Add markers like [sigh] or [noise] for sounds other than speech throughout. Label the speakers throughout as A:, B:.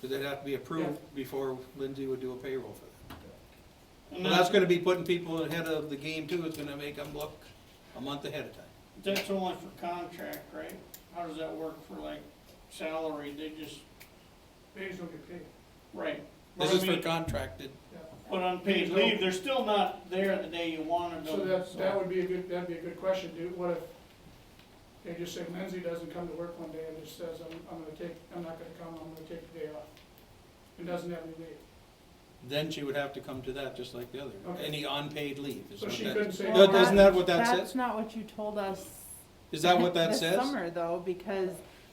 A: Because it'd have to be approved before Lindsay would do a payroll for that.
B: And
A: Well, that's gonna be putting people ahead of the game too, it's gonna make them look a month ahead of time.
B: That's only for contract, right? How does that work for like salary? They just,
C: They just don't get paid.
B: right.
A: This
B: But I
A: is for
B: mean,
A: contracted,
B: But unpaid leave, they're still not there the day you wanted them.
C: So that, that would be a good, that'd be a good question, do, what if they just say Lindsay doesn't come to work one day and just says, I'm, I'm gonna take, I'm not gonna come, I'm gonna take the day off? And doesn't have any leave.
A: then she would have to come to that just like the other,
C: Okay.
A: any unpaid leave. is
C: So
A: what
C: she
A: that-
C: couldn't say.
A: No, Isn't that what that
D: That's
A: says?
D: not what you told us.
A: Is that what that
D: [laughs] This
A: says?
D: summer though, because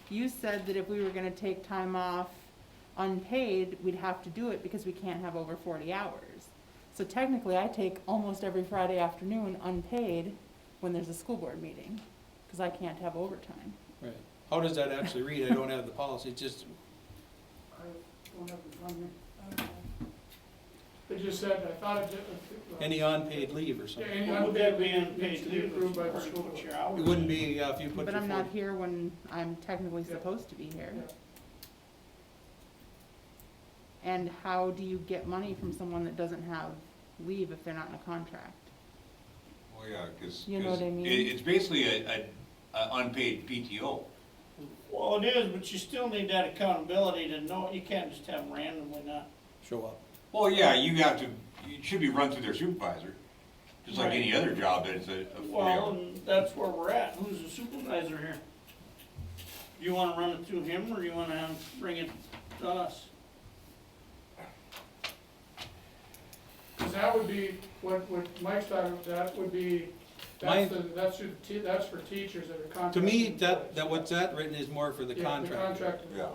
D: you said that if we were gonna take time off unpaid, we'd have to do it because we can't have over forty hours. So technically, I take almost every Friday afternoon unpaid when there's a school board meeting, cause I can't have overtime.
A: Right. How does that actually read? I don't have the policy, it's just,
C: I don't have it in front of me. I don't know. They just said, I thought it did. uh,
A: any unpaid leave or
C: Yeah,
A: something.
C: any
B: Would that be
C: unpaid leave needs
B: unpaid
C: to be
B: leave?
C: approved by the
B: Or
C: school
B: put
C: board.
B: your hours
A: It wouldn't
B: in?
A: be uh, if you put
D: But
A: your
D: I'm not
A: forty.
D: here when I'm technically
C: Yeah.
D: supposed to be here.
C: Yeah.
D: And how do you get money from someone that doesn't have leave if they're not in a contract?
E: Well, Oh, yeah, because.
D: You know what I mean?
E: It's basically a, a, a unpaid PTO.
B: Well, it is, but you still need that accountability to know, you can't just have them randomly not.
A: Show up.
E: Well, yeah, you have to, it should be run through their supervisor, just like any other job that is a, a forty
B: Well,
E: hour.
B: and that's where we're at. Who's the supervisor here? Do you wanna run it through him or you wanna have, bring it to us?
C: Cause that would be, what, what Mike's talking about, that would be,
A: My-
C: that's the, that's who, te- that's for teachers that are
A: To
C: contracted.
A: me, that,
C: employees.
A: that, what's that written is more for the
C: Yeah,
A: contractor.
C: contracted
E: Yeah.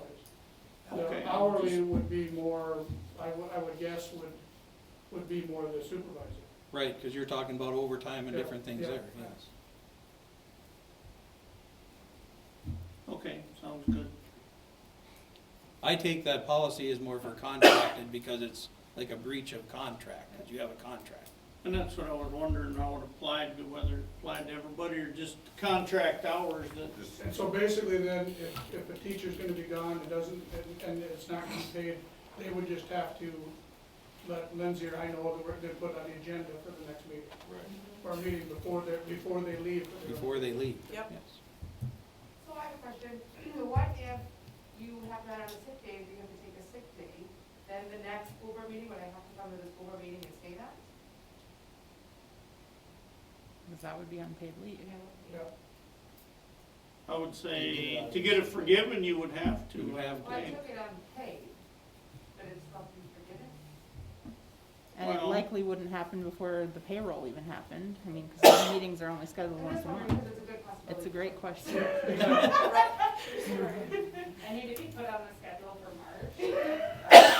C: employees.
B: Okay.
C: The hourly would be more, I would, I would guess would, would be more the supervisor.
A: Right, because you're talking about overtime and
C: Yeah,
A: different things
C: yeah.
A: there, yes.
B: Okay, sounds good.
A: I take that policy as more for contracted because it's like a breach of contract, because you have a contract.
B: And that's what I was wondering, how it applied to whether it applied to everybody or just contract hours that,
C: And so basically then, if, if a teacher's gonna be gone, it doesn't, and, and it's not gonna be paid, they would just have to let Lindsay or I know that we're gonna put on the agenda for the next meeting, or meeting before they, before they leave. for their-
A: Before they leave.
F: Yep.
A: Yes.
G: So I have a question. What if you have that on a sick day, if you have to take a sick day, then the next school board meeting, would I have to come to the school board meeting and say that?
D: Cause that would be unpaid leave.
C: Yeah.
B: I would say, to get it forgiven, you would have to.
A: You would have
G: Well, I
A: to.
G: took it unpaid, but it's something forgiven.
D: And it
B: Well-
D: likely wouldn't happen before the payroll even happened. I mean, because meetings are only scheduled
G: I'm
D: once
G: just
D: a
G: wondering
D: month.
G: because it's a good possibility.
D: It's a great question.
F: I need to be put on the schedule for March.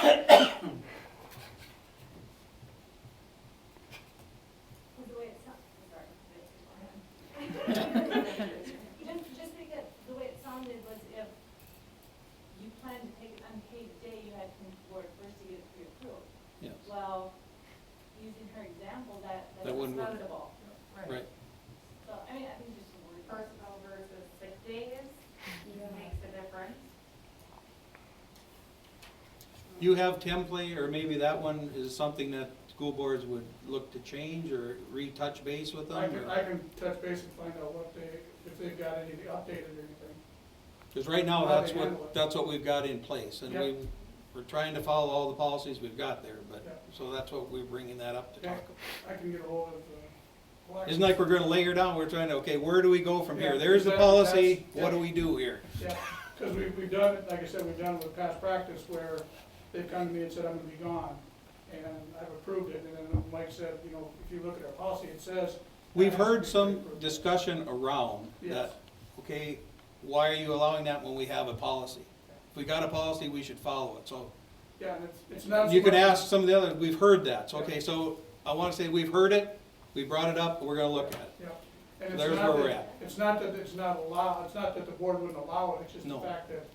H: Because the way it sounded, sorry. Just, just because the way it sounded was if you planned to take an unpaid day, you had to come to board first to get it pre-approved.
A: Yes,
H: Well, using her example, that,
A: That
H: that's
A: wouldn't work.
H: discreditable.
A: right.
H: So, I mean, I think just a word.
G: Personal versus sick days makes a difference.
A: You have template, or maybe that one is something that school boards would look to change or retouch base with
C: I
A: them?
C: can, I can touch base and find out what they, if they've got any updated or anything.
A: Because right now,
C: How they
A: that's
C: handle
A: what,
C: it.
A: that's what we've got in place, and
C: Yep.
A: we, we're trying to follow all the policies we've got there, but,
C: Yep.
A: so that's what we're bringing that up to
C: Yeah.
A: talk about.
C: I can get ahold of, uh.
A: Isn't like we're gonna layer down, we're trying to, okay, where do we go from here?
C: Yeah,
A: There's the
C: exactly,
A: policy,
C: that's-
A: what do we do here?
C: Yeah, because we, we've done, it. like I said, we've done it with past practice where they've come to me and said, I'm gonna be gone, and I've approved it, and then Mike said, you know, if you look at our policy, it says.
A: We've heard some discussion around
C: Yes.
A: that, okay, why are you allowing that when we have a policy? If we got a policy, we should follow it, so
C: Yeah, and it's, it's not. so
A: you can
C: much-
A: ask some of the other, we've heard that, so, okay, so I wanna say we've heard it, we brought it up, we're gonna look at it.
C: Yeah, and it's
A: There's
C: not
A: where we're
C: that- It's not that it's not allowed, it's not that the board wouldn't allow it, it's just the
A: No.
C: fact that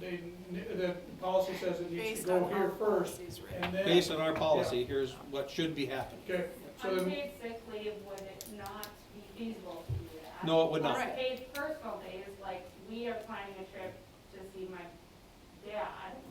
C: they, kn- the policy says it needs to
F: Based
C: go
F: on
C: here
F: our
C: first,
F: policies, right?
C: and then.
A: Based on our policy, here's what should be happening.
C: Okay, so then,
F: Unpaid sick leave would it not be feasible to do that?
A: No, it would not.
F: Unpaid personal days, like, we are planning a trip to see my dad,